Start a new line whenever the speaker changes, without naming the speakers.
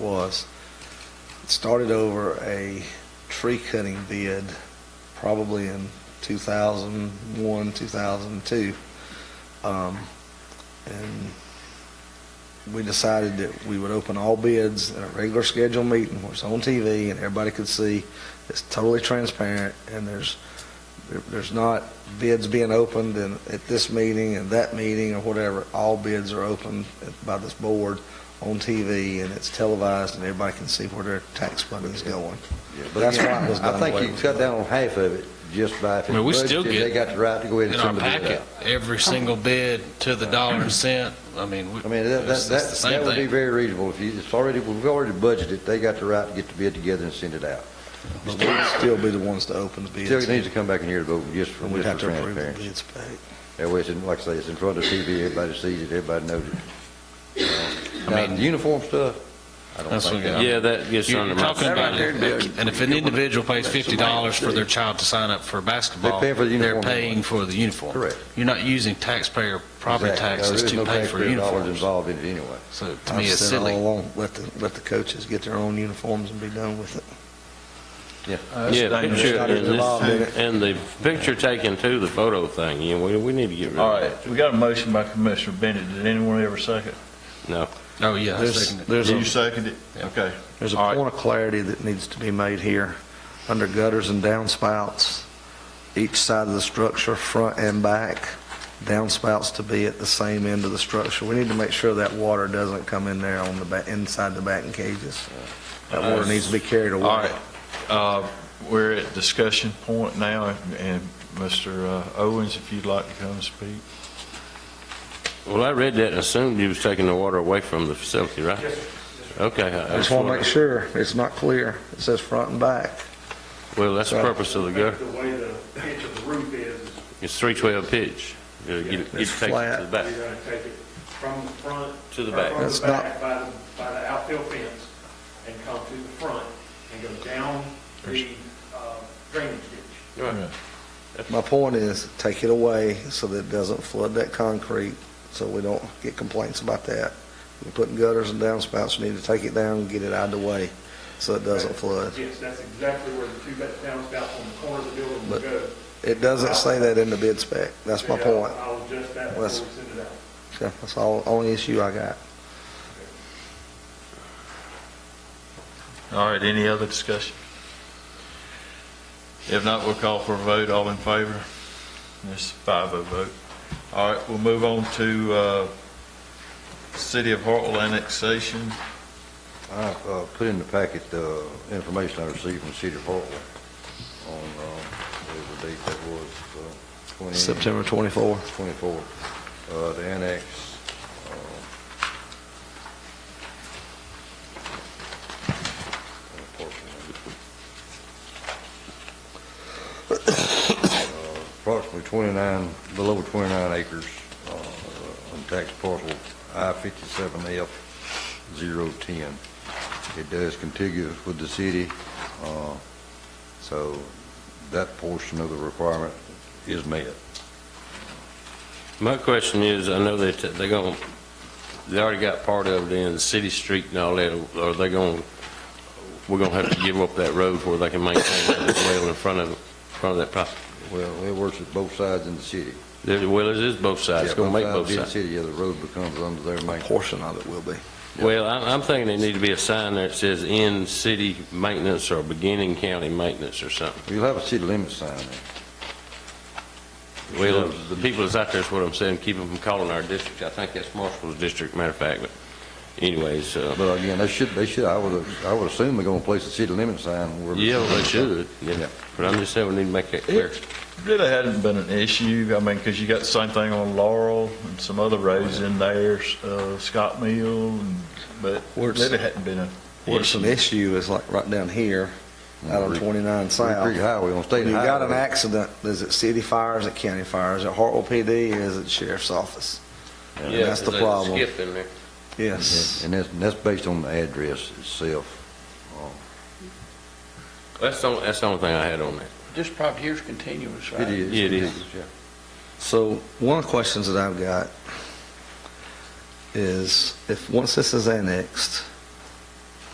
was, it started over a tree cutting bid probably in 2001, 2002. Um, And we decided that we would open all bids at a regular scheduled meeting, where it's on TV and everybody could see. It's totally transparent and there's, there- there's not bids being opened and at this meeting and that meeting or whatever. All bids are opened by this board on TV and it's televised and everybody can see where their tax money is going.
Yeah, but
That's
again,
why it was done. the way
I
it
think you
was
cut
done.
down on half of it just by. if
I mean, we
it's
still
budgeted,
get
They got the right to go ahead
in
and
our
send the bill
packet,
out.
every single bid to the dollar and cent, I mean, we-
I mean, that, that,
it's
that
it's the
that
same
would be
thing.
very reasonable. If you, it's already, we've already budgeted, they got the right to get the bid together and send it out.
But we'd still be the ones to open the bids.
Still needs to come back in here to vote just for,
And we'd
just
have
for
to approve the
transparency.
bids back.
That way, it's in, like I say, it's in front of TV, everybody sees it, everybody knows it. Now,
mean-
the uniform stuff, I don't
That's
think
what-
that.
Yeah, that gets
You're
under
talking
my,
about, it. and if an individual pays fifty dollars for their child to sign up for basketball,
They're paying for the
they're
uniform.
paying for the uniform.
Correct.
You're not using taxpayer property
Exactly. No,
taxes
there is
to
no
pay for
taxpayer Dollars
uniforms,
involved in it anyway.
so to
I've
me, it's
said all
silly.
along, Let the, let the coaches get their own uniforms and be done with it.
yeah,
dangerous.
picture,
Not
and
involved in it.
this- and the picture taken too, the photo thing, you know, we, we need to get rid
All
of
right,
that.
we got a motion by Commissioner Bennett. Did anyone ever second?
No.
Oh, yeah, I
There's,
second it.
there's
Did you
a,
second it?
Yeah.
Okay.
there's a
All right.
point of clarity that needs to be made here. Under gutters and downspouts, each side of the structure, front and back, downspouts to be at the same end of the structure. We need to make sure that water doesn't come in there on the back, inside the batting cages. That water needs to be carried away.
All right, uh, we're at discussion point now, and Mr. Owens, if you'd like to come and speak.
Well, I read that and assumed you was taking the water away from the facility, right? Okay.
I just want to make sure it's not clear. It says front and back.
Well, that's the purpose of the
think
gutter.
the way the pitch of the roof is, is
It's three twelve pitch. You get, it- you
It's
take it
flat.
to the
you're
back.
going to take it from the front.
To the
or
back.
From
That's
the back by the, by the outfield fence and come to the front and go down the uh, drainage ditch.
My point is, take it away so that it doesn't flood that concrete, so we don't get complaints about that. We're putting gutters and downspouts, we need to take it down and get it out of the way, so it doesn't flood.
Yes, that's exactly where the two ba- downspouts on the corner of the building will
But
go.
It doesn't say that in the bid spec, that's my
And I'll-
point.
I'll adjust that before we
That's-
send it out.
Okay, That's all, only issue I got.
All right, any other discussion? If not, we'll call for a vote. All in favor? This is five oh vote. All right, we'll move on to uh, City of Hartwell annexation.
I uh, put in the packet the information I received from Cedar Park on, uh, whatever date that was, uh, 20...
September 24.
24, uh, the annex. uh, Approximately 29, below 29 acres uh, on tax parcel I-57F-010. It does contiguous with the city, uh, so that portion of the requirement is met.
My question is, I know that they're going, they already got part of it in City Street and all that. Are they going, we're going to have to give up that road where they can maintain that well in front of, in front of that property?
Well, it works at both sides in the city.
There- Well, it is both sides, it's
Yeah,
going to make both
in the
sides.
city, yeah, the road becomes under their
A
main.
portion of it will be.
Well, I'm, I'm thinking there need to be a sign there that says in city maintenance or beginning county maintenance or something.
You'll have a city limit sign there.
Well, the people that's out there is what I'm saying, keep them from calling our district. I think that's Marshall's district, matter of fact, but anyways, uh,
But again, they should, they should, I would, I would assume they're gonna place a city limit sign where.
yeah, they should, yeah.
Yeah.
But I'm just saying we need to make that clear.
Really hadn't been an issue, I mean, because you got the same thing on Laurel and some other roads in there, uh, Scott Mill, and- but
Where it's-
really hadn't been a
Where it's an
issue.
issue is like right down here, out on 29 South.
Creek Highway on State
When you got an
Highway.
accident, is it city fire, is it county fire, is it Hartwell PD, is it sheriff's office? And that's the problem.
Skip in there.
Yes.
And that's, and that's based on the address itself.
That's the, only- that's the only thing I had on that.
This property here is continuous,
It
right?
is.
It is.
yeah.
So one of the questions that I've got is if, once this is annexed,